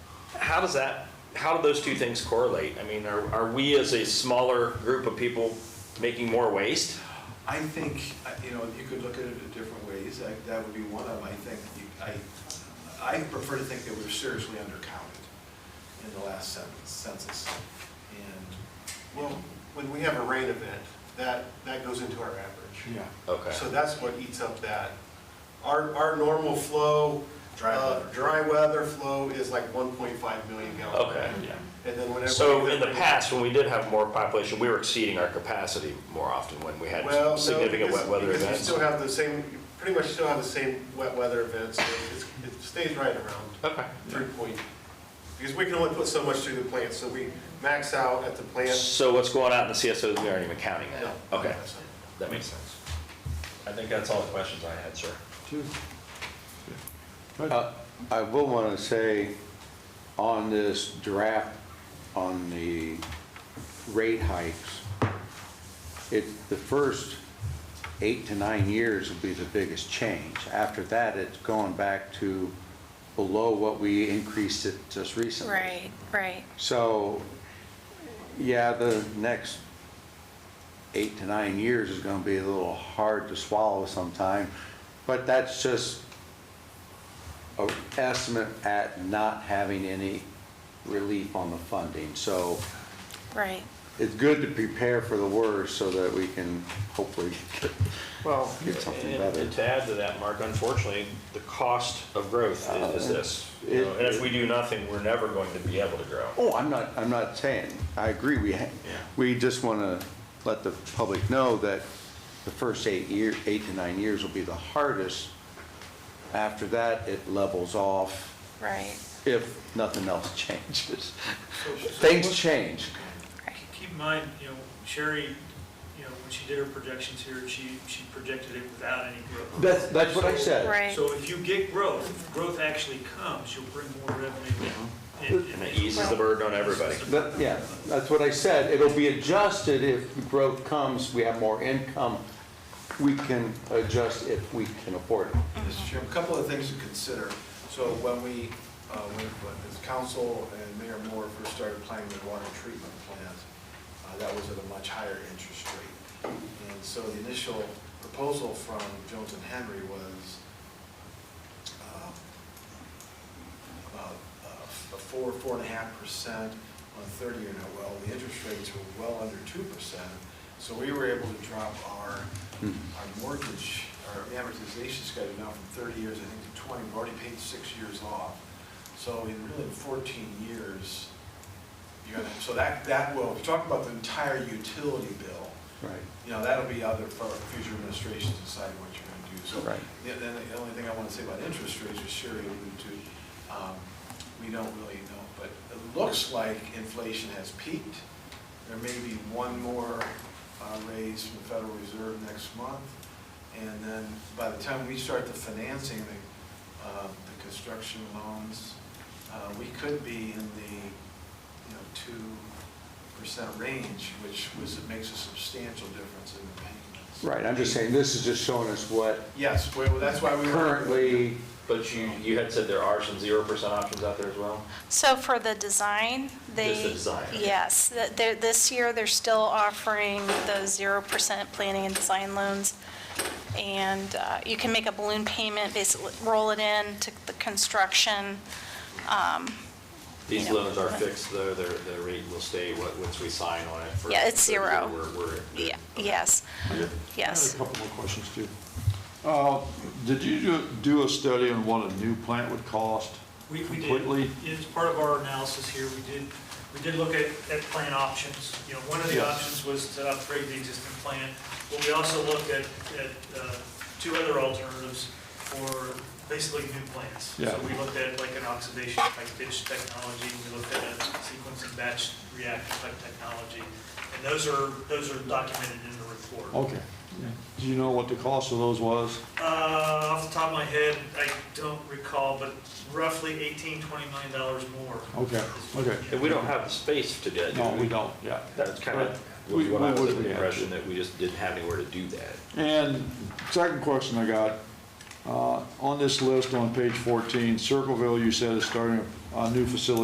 how does that, how do those two things correlate? I mean, are, are we as a smaller group of people making more waste? I think, uh, you know, you could look at it in different ways, That- that would be one of them, I think, you- I, I prefer to think that we we're seriously undercounted in the last cen- census. And, Well, when we have a rain event, that, that goes into our average. yeah, Okay. So that's what eats up that. Our, our normal flow, Dry uh, weather. dry weather flow is like 1.5 million gallons. Okay. yeah. And then whenever. So we- in the past, when we did have more population, we were exceeding our capacity more often when we had Well, no, significant because- wet weather Because events. you still have the same, you pretty much still have the same wet weather events. So it's- It stays right around Okay. three point, because we can only put so much through the plant, so we max out at the plant. So what's going out in the CSOs, we aren't even counting it. No. Okay, that makes sense. I think that's all the questions I had, sir. Uh, I will want to say, on this draft, on the rate hikes, it, the first eight to nine years will be the biggest change. After that, it's going back to below what we increased it just recently. Right, right. So, yeah, the next eight to nine years is gonna be a little hard to swallow sometime, but that's just a estimate at not having any relief on the funding. So Right. it's good to prepare for the worst so that we can hopefully get Well, Get something and- better. and to add to that, Mark, unfortunately, the cost of growth is- is this. you know, Uh, It- And if we do nothing, we're never going to be able to grow. Oh, I'm not, I'm not saying, I agree, we, ha- Yeah. we just want to let the public know that the first eight year, eight to nine years will be the hardest. After that, it levels off Right, if nothing else changes. Things change. right. Keep in mind, you know, Sherry, you know, when she did her projections here, she, she projected it without any growth. That's, that's what I said. Right. So if you get growth, if growth actually comes, you'll bring more revenue in. And- And it eases the burden on everybody. That- yeah, that's what I said. It'll be adjusted if growth comes, we have more income. We can adjust if we can afford it. Mr. Chairman, a couple of things to consider. So when we, uh, when, when this council and Mayor Moore first started planning the water treatment plant, uh, that was at a much higher interest rate. And so the initial proposal from Jones and Henry was, um, about uh, a four, four and a half percent on thirty-year note. Well, the interest rates were well under two percent, so we were able to drop our, our mortgage, our amortization schedule now from thirty years, I think, to twenty. We've already paid six years off. So in really fourteen years, you're gonna, so that, that will, if you talk about the entire utility bill, Right. you know, that'll be other for future administrations decide what you're gonna do. So, Right. the- then the only thing I wanna say about interest rates is Sherry alluded to, um, we don't really know, but it looks like inflation has peaked. There may be one more, uh, raise from the Federal Reserve next month. And then by the time we start the financing, the, uh, the construction loans, uh, we could be in the you know, two percent range, which was, it makes a substantial difference in the payments. Right, I'm just saying, this is just showing us what Yes, well, that's why we. were- currently But you, you had said there are some zero percent options out there as well? So for the design, they. Just the design, okay. Yes, th- they're, this year, they're still offering those zero percent planning and design loans. And uh, you can make a balloon payment, basically roll it in to the construction. um, These you know. loans are fixed, though, their, the rate will stay what, once we sign on it for. Yeah, it's for the year zero. We're, we're. Yeah, yes, yes. I had a couple more questions, too. Uh, Did you do- do a study on what a new plant would cost? We, we Completely? did, as part of our analysis here, we did, we did look at, at plant options. You know, one of the Yes. options was to upgrade the existing plant, but we also looked at, at uh, two other alternatives for basically new plants. Yeah. So we looked at like an oxidation type ditch technology, we looked at a sequence and batch reactor type technology. And those are, those are documented in the report. Okay. Do you know what the cost of those was? Uh, off the top of my head, I don't recall, but roughly 18, 20 million dollars more. Okay, okay. And we don't have the space to do that. do No, we we? don't, yeah. That's kind of, But we- what I we was would under the have to. impression that we just didn't have anywhere to do that. And second question I got, uh, on this list on page 14, Circleville, you said is starting a a new facility